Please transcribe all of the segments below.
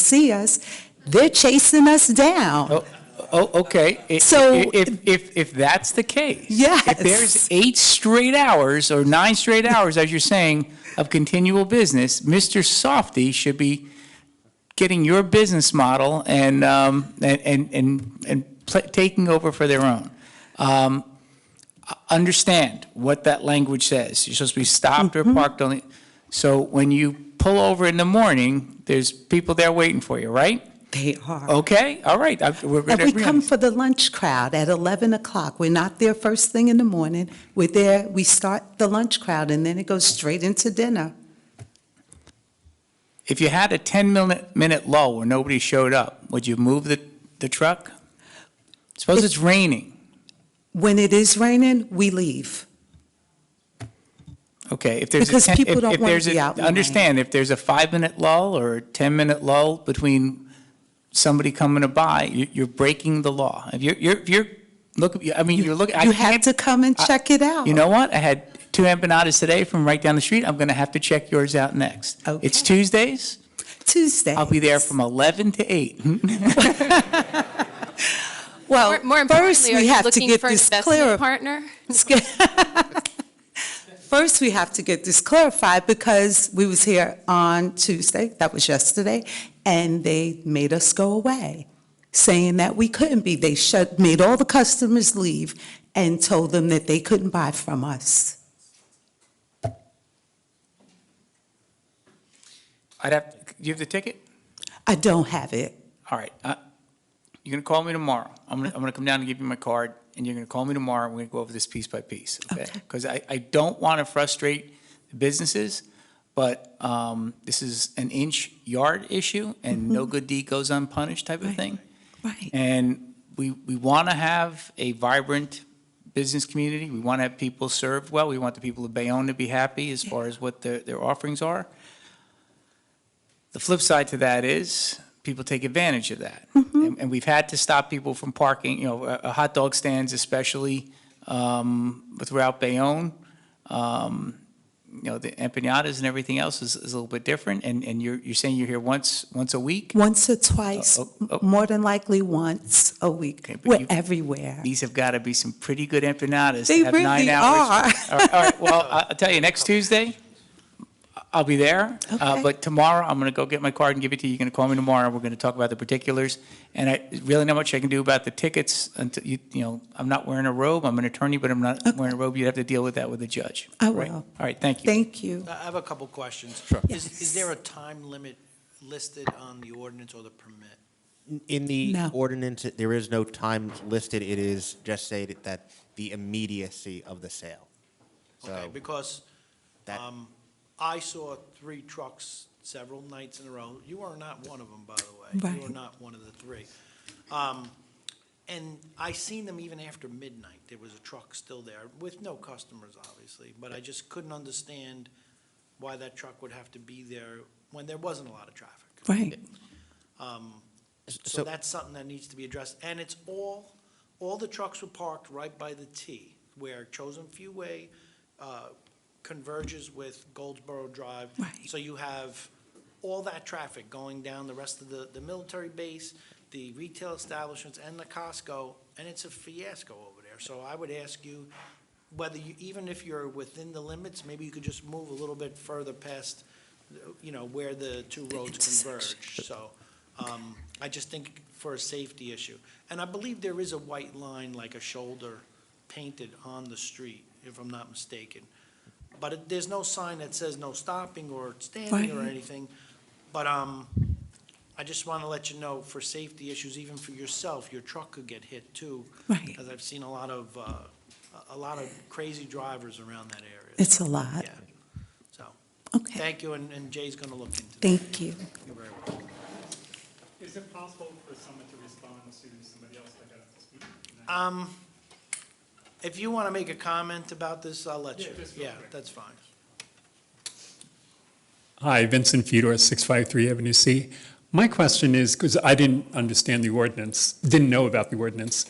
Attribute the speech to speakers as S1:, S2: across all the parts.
S1: see us, they're chasing us down.
S2: Oh, oh, okay. I-
S1: So-
S2: i- If, if, if that's the case. If
S1: Yes.
S2: there's eight straight hours or nine straight hours, as you're saying, of continual business, Mr. Softy should be getting your business model and, um, and, and, and, and pl- taking over for their own. Um, I- understand what that language says. You're supposed to be stopped
S1: Mm-hmm.
S2: or parked on the, so when you pull over in the morning, there's people there waiting for you, right?
S1: They are.
S2: Okay, all right, I- Oh, we're going
S1: And
S2: to
S1: we
S2: agree on
S1: come
S2: this.
S1: for the lunch crowd at 11 o'clock. We're not there first thing in the morning. We're there, we start the lunch crowd, and then it goes straight into dinner.
S2: If you had a 10-minute lull where nobody showed up, would you move the, the truck? Suppose
S1: If-
S2: it's raining,
S1: When it is raining, we leave.
S2: okay, if there's a
S1: Because
S2: 10...
S1: people
S2: if-
S1: don't
S2: if
S1: wanna
S2: there's a-
S1: be out in the rain.
S2: Understand, if there's a five-minute lull or a 10-minute lull between somebody coming to buy, you- you're breaking the law. If you're, you're, if you're, look, I mean, you're looking, I
S1: You have
S2: can't-
S1: to come and
S2: I-
S1: check it out.
S2: You know what? I had two empanadas today from right down the street. I'm going to have to check yours out next. It's
S1: Okay.
S2: Tuesdays.
S1: Tuesday.
S2: I'll be there from 11 to 8.
S1: Mm-hmm. Well,
S3: More- More
S1: first
S3: importantly, are
S1: we
S3: you
S1: have to
S3: looking
S1: get
S3: for an
S1: this clear.
S3: investment partner?
S1: First, we have to get this clarified because we was here on Tuesday, that was yesterday, and they made us go away, saying that we couldn't be. They shut, made all the customers leave and told them that they couldn't buy from us.
S2: I'd have, do you have the ticket?
S1: I don't have it.
S2: All right. uh, You're going to call me tomorrow. I'm going to, I'm going to come down and give you my card, and you're going to call me tomorrow, and we're going to go over this piece by piece, okay?
S1: Okay.
S2: Because I, I don't want to frustrate the businesses, but um, this is an inch yard issue, and no good deed goes unpunished type of
S1: Right.
S2: thing.
S1: Right.
S2: And we, we want to have a vibrant business community. We want to have people served well. We want the people of Bayonne to be happy as far as what their, their offerings are. The flip side to that is people take advantage of that. And, and we've had to stop people from parking, you know, uh, uh, hot dog stands especially um, throughout Bayonne. Um, You know, the empanadas and everything else is, is a little bit different. And, and you're, you're saying you're here once, once a week?
S1: Once or twice,
S2: Oh, oh, oh.
S1: more than likely once a week.
S2: Okay, but
S1: We're
S2: you-
S1: everywhere.
S2: These have got to be some pretty good empanadas
S1: They
S2: to have nine
S1: really
S2: hours.
S1: are.
S2: All right, all right, well, I- I'll tell you, next Tuesday, I'll be there. uh,
S1: Okay.
S2: But tomorrow, I'm going to go get my card and give it to you. You're going to call me tomorrow. We're going to talk about the particulars. And I, really not much I can do about the tickets until, you, you know, I'm not wearing a robe. I'm an attorney, but I'm not wearing a robe. You'd have to deal with that with the judge.
S1: I
S2: Right?
S1: will.
S2: All right, thank you.
S1: Thank you.
S4: I have a couple questions.
S5: Sure.
S1: Yes.
S4: Is, is there a time limit listed on the ordinance or the permit?
S5: In the
S1: No.
S5: ordinance, there is no time listed. It is just stated that the immediacy of the sale.
S4: Okay,
S5: So
S4: because,
S5: that-
S4: um, I saw three trucks several nights in a row. You are not one of them, by the way. You are
S1: Right.
S4: not one of the three. Um, and I seen them even after midnight. There was a truck still there with no customers, obviously, but I just couldn't understand why that truck would have to be there when there wasn't a lot of traffic.
S1: Right.
S4: Um, So
S5: so
S4: that's something that needs to be addressed, and it's all, all the trucks were parked right by the T, where Chosen Few Way uh, converges with Goldsboro Drive.
S1: Right.
S4: So you have all that traffic going down the rest of the, the military base, the retail establishments, and the Costco, and it's a fiasco over there. So I would ask you, whether you, even if you're within the limits, maybe you could just move a little bit further past, you know, where the two roads converge, so. um, I just think for a safety issue. And I believe there is a white line, like a shoulder painted on the street, if I'm not mistaken. But it- there's no sign that says no stopping or standing or
S1: Right.
S4: anything. But um, I just want to let you know, for safety issues, even for yourself, your truck could get hit too.
S1: Right.
S4: Because I've seen a lot of, uh, a- a lot of crazy drivers around that area.
S1: It's a lot.
S4: Yeah. So,
S1: Okay.
S4: thank you, and and Jay's going to look into that.
S1: Thank you.
S4: You're very welcome.
S6: Is it possible for someone to respond as soon as somebody else that got to speak?
S4: Um, if you want to make a comment about this, I'll let you. Yeah, that's fine.
S6: Hi, Vincent Fedor, 653 Avenue C. My question is, because I didn't understand the ordinance, didn't know about the ordinance.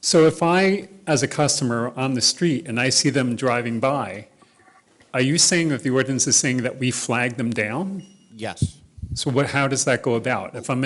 S6: So if I, as a customer on the street, and I see them driving by, are you saying that the ordinance is saying that we flag them down?
S5: yes.
S6: So what, how does that go about? If I'm